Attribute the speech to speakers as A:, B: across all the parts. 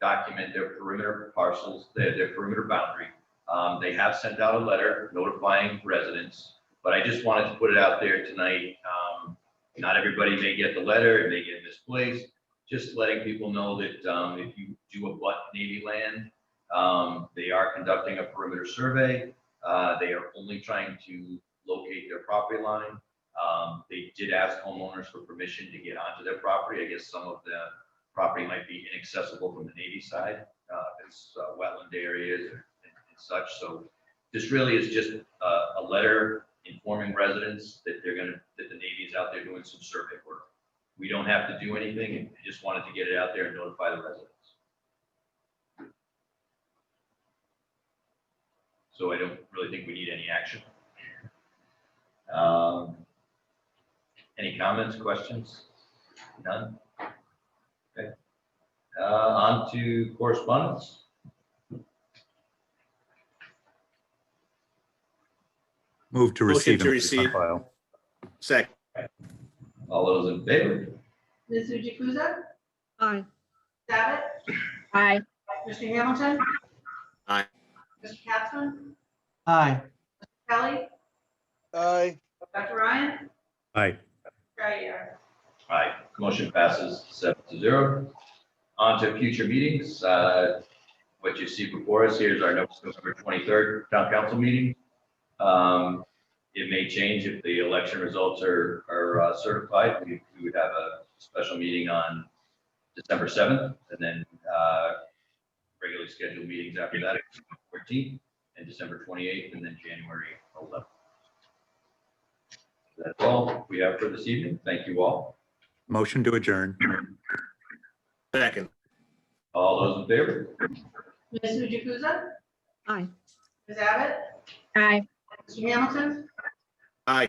A: re-document their perimeter parcels, their, their perimeter boundary. Um, they have sent out a letter notifying residents, but I just wanted to put it out there tonight. Um, not everybody may get the letter, it may get misplaced. Just letting people know that, um, if you do a butt Navy land, um, they are conducting a perimeter survey. Uh, they are only trying to locate their property line. Um, they did ask homeowners for permission to get onto their property. I guess some of the property might be inaccessible from the Navy side. Uh, it's uh, wetland areas and and such, so this really is just a, a letter informing residents that they're gonna, that the Navy is out there doing some survey work. We don't have to do anything, and I just wanted to get it out there and notify the residents. So I don't really think we need any action. Um, Any comments, questions? None? Okay. Uh, on to correspondence.
B: Move to
C: Motion
B: receive.
C: to
B: and place on
C: receive.
B: file.
C: Second,
A: All those in favor?
D: Ms. Jukusa?
E: Aye.
D: Abbott?
E: Aye.
D: Mr. Hamilton?
C: Aye.
D: Mr. Capson?
F: aye,
D: Kelly?
G: aye,
D: Dr. Ryan? uh,
B: Aye.
D: Right here.
A: Aye, motion passes seven to zero. On to future meetings, uh, what you see before us here is our November twenty-third town council meeting. Um, it may change if the election results are, are uh, certified, we, we would have a special meeting on December seventh, and then, uh, regularly scheduled meetings after that, fourteenth, and December twenty-eighth, and then January eleventh. That's all we have for this evening, thank you all.
B: Motion to adjourn.
C: second,
A: All those in favor?
D: Ms. Jukusa?
E: Aye.
D: Ms. Abbott?
E: Aye.
D: Mr. Hamilton?
C: aye.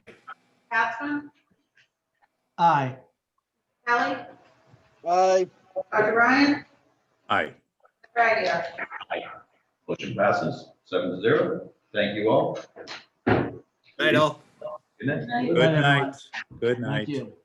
D: Capson?
F: aye.
D: Kelly?
G: aye.
D: Dr. Ryan? uh,
B: Aye.
D: Right here.
A: Motion passes seven to zero. Thank you all.
C: Night all.
A: Good night.
B: Good night. Good night.
F: Thank you.